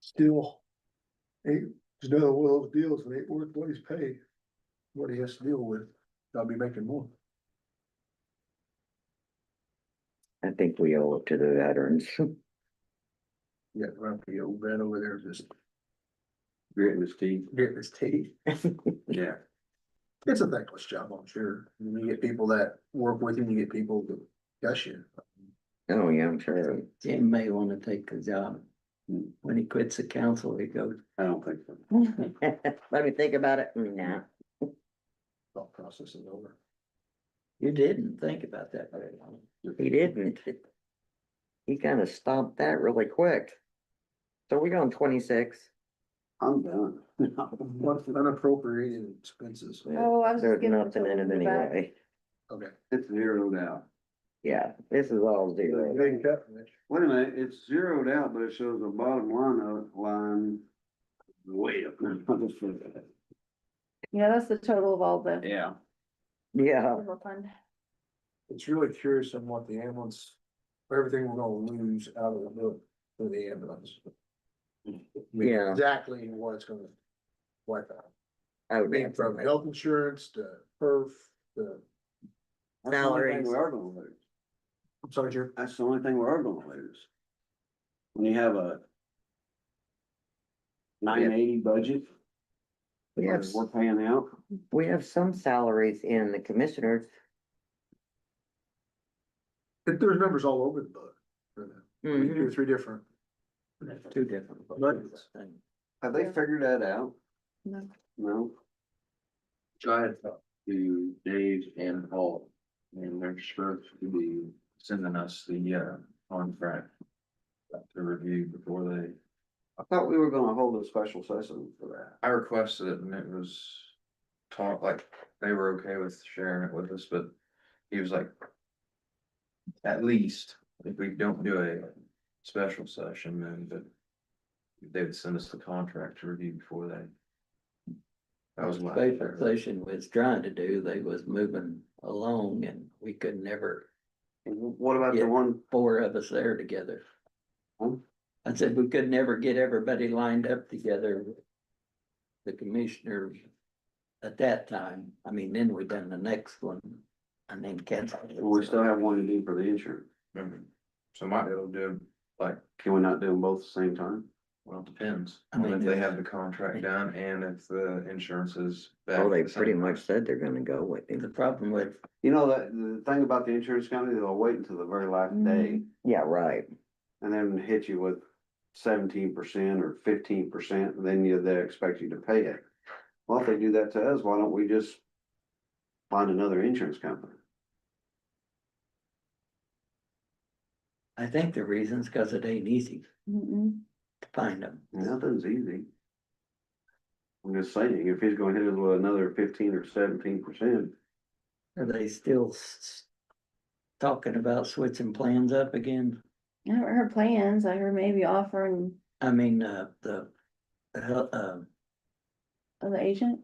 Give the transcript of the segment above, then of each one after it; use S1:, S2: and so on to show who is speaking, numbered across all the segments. S1: still. Ain't, it's another one of those deals, that ain't worth what he's paid. What he has to deal with, I'll be making more.
S2: I think we owe it to the veterans.
S1: Yeah, grumpy old man over there just
S3: Gritting his teeth.
S1: getting his teeth.
S3: Yeah.
S1: It's a thankless job, I'm sure. You get people that work with you, you get people that gush you.
S2: Oh, yeah, I'm sure.
S4: Jim may wanna take the job.
S3: Hmm.
S4: When he quits the council, he goes,
S3: I don't think so.
S2: Let me think about it. Mm, Nah,
S1: Thought process is over.
S4: you didn't think about that very long.
S2: he didn't. He kind of stomped that really quick. So we on twenty-six.
S3: I'm done.
S1: What's unappropriated expenses?
S5: Oh, I was just
S2: There's
S5: giving
S2: nothing in it
S5: something back.
S2: anyway.
S1: Okay.
S3: It's zeroed out.
S2: Yeah, this is all zero.
S1: They cut it.
S3: Wait a minute, it's zeroed out, but it shows the bottom line of it, line. Way up.
S5: Yeah, that's the total of all the.
S3: Yeah.
S2: Yeah,
S5: general fund.
S1: It's really curious on what the ambulance, everything we're gonna lose out of the book for the ambulance.
S2: Yeah.
S1: Exactly what it's gonna wipe out.
S2: oh,
S1: I mean, from
S2: definitely.
S1: health insurance to perf, the,
S3: That's the only thing
S2: Salaries.
S3: We are gonna lose.
S1: I'm sorry, Jerry.
S3: That's the only thing we are gonna lose. When you have a. Nine eighty budget.
S2: We have,
S3: We're paying out.
S2: we have some salaries in the commissioners.
S1: There- There's numbers all over the book. for that. Two or
S2: Mhm.
S1: three different.
S4: That's two different.
S1: Nuggets.
S4: things.
S3: Have they
S5: Yeah.
S3: figured that out?
S5: No.
S3: No? Tried to Dave and Paul, and they're supposed to be sending us the, uh, contract to review before they. I thought we were gonna hold a special session for that.
S6: I requested it and it was taught like they were okay with sharing it with us, but he was like. At least if we don't do a special session, then but. They would send us the contract to review before they. That was my.
S4: Special session was trying to do, they was moving along and we could never,
S3: And wh- What about the
S4: Yeah.
S3: one,
S4: four of us there together.
S3: Hmm.
S4: I said, we could never get everybody lined up together. The commissioners at that time, I mean, then we done the next one and then canceled. it.
S3: we still have one to do for the insurance,
S6: Mhm. So might be able to do, like,
S3: can we not do them both at the same time?
S6: well, it depends,
S4: I
S6: on
S4: mean,
S6: if they
S4: there's-
S6: have the contract done and if the insurance is. back
S2: Oh, they
S6: at the same
S2: pretty
S6: time.
S2: much said they're gonna go with
S4: The
S2: him.
S4: problem with
S3: You know, that, the thing about the insurance company, they'll wait until the very last
S5: Mm-hmm.
S3: day
S2: Yeah, right.
S3: and then hit you with seventeen percent or fifteen percent, and then you, they expect you to pay it. Well, if they do that to us, why don't we just find another insurance company?
S4: I think the reason's cause it ain't easy
S5: Mm-mm.
S4: to find them.
S3: Nothing's easy. I'm just saying, if he's gonna hit us with another fifteen or seventeen percent,
S4: Are they still s- s- talking about switching plans up again?
S5: I haven't heard plans. I heard maybe offering
S4: I mean, uh, the, the, hel- uh,
S5: of the agent.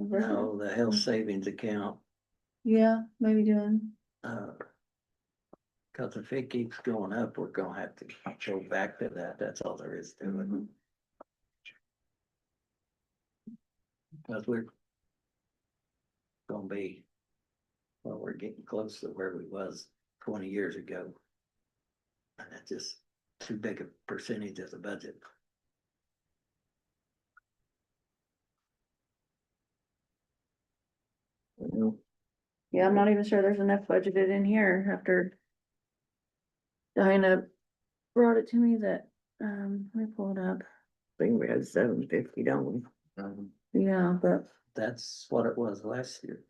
S5: a version.
S4: no, the health savings account,
S5: Yeah, maybe doing,
S4: uh. Cause if it keeps going up, we're gonna have to go back to that. That's all there is to it.
S5: Mhm.
S4: Cause we're. Gonna be. Well, we're getting close to where we was twenty years ago. And that's just too big a percentage of the budget.
S5: yeah, I'm not even sure there's enough budgeted in here after. Diana brought it to me that, um, let me pull it up.
S2: I think we had seven fifty, don't we?
S6: Mhm.
S5: Yeah, but
S4: That's what it was last year.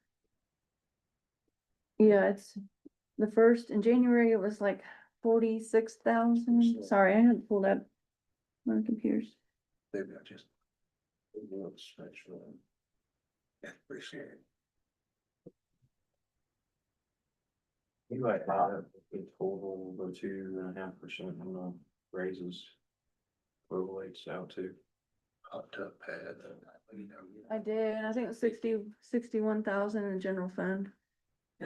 S5: yeah, it's the first in January, it was like forty-six thousand. Sorry, I hadn't pulled up. My computers.
S1: Maybe I just. maybe I'll just make sure. Yeah, appreciate it.
S6: You might have a total of two and a half percent on the raises. Overlays out to.
S1: Hot tub pad. uh, you know,
S5: I did, I think it was sixty, sixty-one thousand in the general fund.